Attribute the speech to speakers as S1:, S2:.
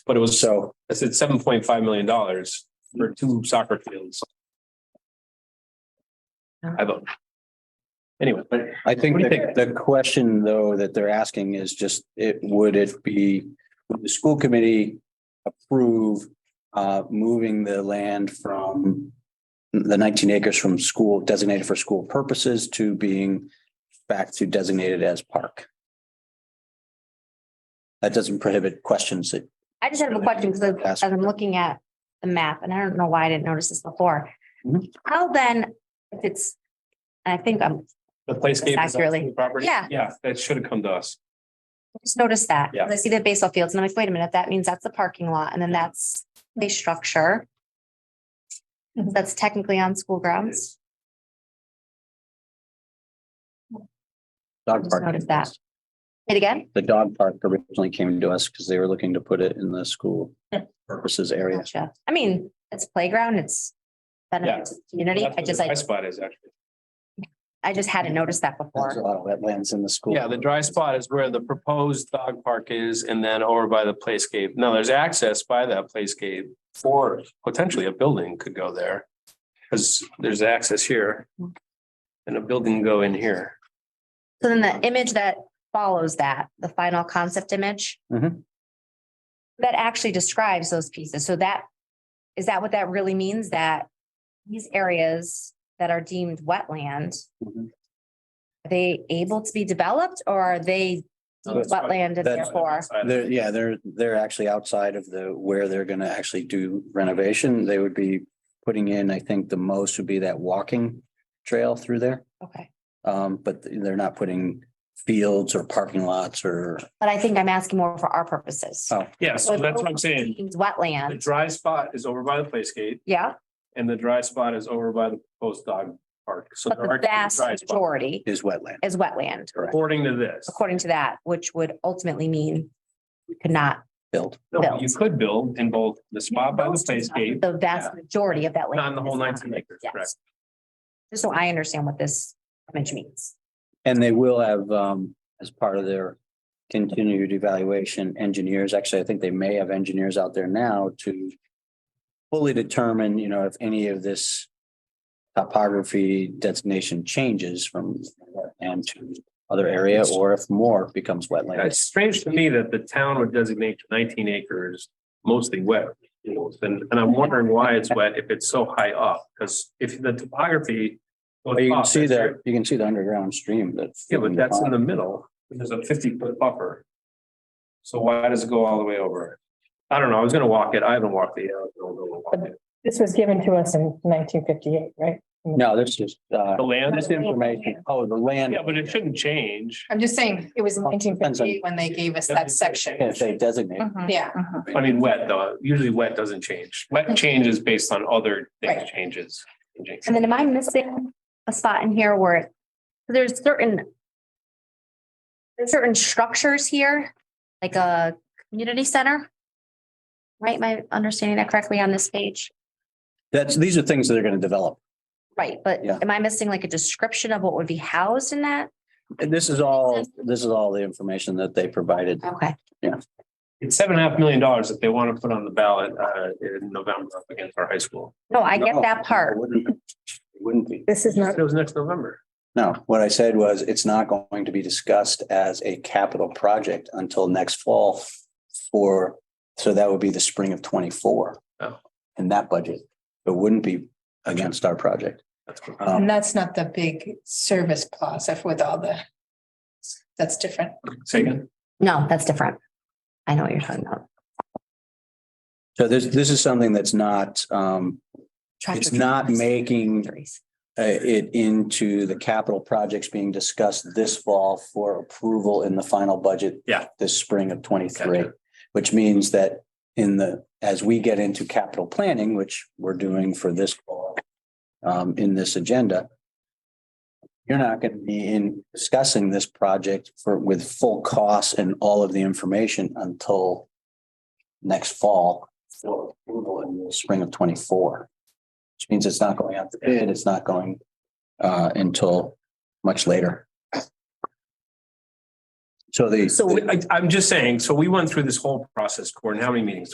S1: But it was,
S2: So,
S1: I said seven point five million dollars for two soccer fields. I vote. Anyway, but
S2: I think
S1: What do you
S2: the, the question though that they're asking is just, it, would it be, would the school committee approve uh, moving the land from the nineteen acres from school designated for school purposes to being back to designated as park? That doesn't prohibit questions that,
S3: I just have a question because
S2: Ask.
S3: as I'm looking at the map, and I don't know why I didn't notice this before.
S2: Mhm.
S3: How then, if it's, I think I'm,
S1: the playscape is
S3: Accurately.
S1: actually the property.
S3: Yeah.
S1: Yeah, that should have come to us.
S3: I just noticed that.
S1: Yeah.
S3: I see the baseball fields and I'm like, wait a minute, that means that's the parking lot and then that's the structure. That's technically on school grounds.
S2: dog
S3: Just
S2: park.
S3: noticed that. It again?
S2: The dog park originally came to us because they were looking to put it in the school purposes area.
S3: Gotcha. I mean, it's playground, it's benefit to the community.
S1: That's where the
S3: I just,
S1: dry
S3: I,
S1: spot is actually.
S3: I just hadn't noticed that
S2: There's a
S3: before.
S2: lot of wetlands in the school.
S1: Yeah, the dry spot is where the proposed dog park is and then over by the playscape. Now, there's access by that playscape for potentially a building could go there. Cause there's access here. And a building can go in here.
S3: So then the image that follows that, the final concept image.
S2: Mhm.
S3: That actually describes those pieces. So that, is that what that really means? That these areas that are deemed wetland,
S2: Mhm.
S3: are they able to be developed or are they
S1: No,
S3: deemed
S1: that's fine.
S3: wetland and
S2: That's-
S3: therefore?
S2: They're, yeah, they're, they're actually outside of the, where they're gonna actually do renovation. They would be putting in, I think the most would be that walking trail through there.
S3: Okay.
S2: Um, but they're not putting fields or parking lots or,
S3: But I think I'm asking more for our purposes.
S2: Oh,
S1: Yeah, so that's what I'm saying.
S3: Deemed
S1: The
S3: Wetland,
S1: dry spot is over by the playscape
S3: yeah,
S1: and the dry spot is over by the proposed dog park. So
S3: but
S1: there are two
S3: the
S1: dry
S3: vast
S1: spots
S3: majority
S2: is wetland.
S3: is wetland.
S1: according to this.
S3: according to that, which would ultimately mean we could not.
S2: Built.
S1: No, You could build in both the spot by the playscape.
S3: The vast majority of that land.
S1: Not the whole
S3: is
S1: 19 acres,
S3: Yes.
S1: correct.
S3: Just so I understand what this image means.
S2: And they will have, um, as part of their continued evaluation, engineers, actually, I think they may have engineers out there now to fully determine, you know, if any of this topography designation changes from and to other area, or if more becomes wetland.
S1: It's strange to me that the town would designate nineteen acres mostly wet. fields, And, and I'm wondering why it's wet if it's so high up, because if the topography. goes
S2: But You can
S1: up,
S2: see
S1: that's
S2: the,
S1: right.
S2: you can see the underground stream that's.
S1: Yeah, but that's in the middle, and there's a fifty foot buffer. So why does it go all the way over? I don't know, I was gonna walk it, I haven't walked the. uh, don't know what walk it.
S4: This was given to us in nineteen fifty-eight, right?
S2: No, that's just, uh,
S1: The land,
S2: this information, oh, the land.
S1: yeah, but it shouldn't change.
S4: I'm just saying, it was nineteen fifty-eight when they gave us that
S2: If
S4: section.
S2: they designate,
S4: Yeah.
S1: I mean, wet though, usually wet doesn't change, wet changes based on other things
S4: Right.
S1: changes. changing.
S3: And then am I missing a spot in here where there's certain there's certain structures here, like a community center? Right? Am I understanding that correctly on this page?
S2: that's, these are things that are gonna develop.
S3: Right, but
S2: Yeah.
S3: am I missing like a description of what would be housed in that?
S2: And this is all, this is all the information that they provided.
S3: Okay.
S1: It's seven and a half million dollars that they want to put on the ballot uh in November up against our high school.
S3: No, I get
S2: No,
S3: that
S2: it
S3: part.
S2: wouldn't- it Wouldn't be.
S4: This is not,
S1: It was next November.
S2: No, what I said was it's not going to be discussed as a capital project until next fall for, so that would be the spring of twenty-four.
S1: Oh.
S2: In that budget, it wouldn't be against our project.
S1: That's what-
S2: Um,
S4: and that's not the big service plaza with all the, that's different.
S1: Say again?
S3: No, that's different. I know what you're talking about.
S2: So this, this is something that's not, um, it's not making uh, it into the capital projects being discussed this fall for approval in the final budget.
S1: Yeah.
S2: This spring of twenty-three,
S1: Gotcha.
S2: which means that in the, as we get into capital planning, which we're doing for this fall, um, in this agenda, you're not going to be in discussing this project for, with full costs and all of the information until next fall for approval in the spring of twenty-four. Which means it's not going out to bid, it's not going uh until much later. So the.
S1: So I I'm just saying, so we went through this whole process, Gordon, how many meetings?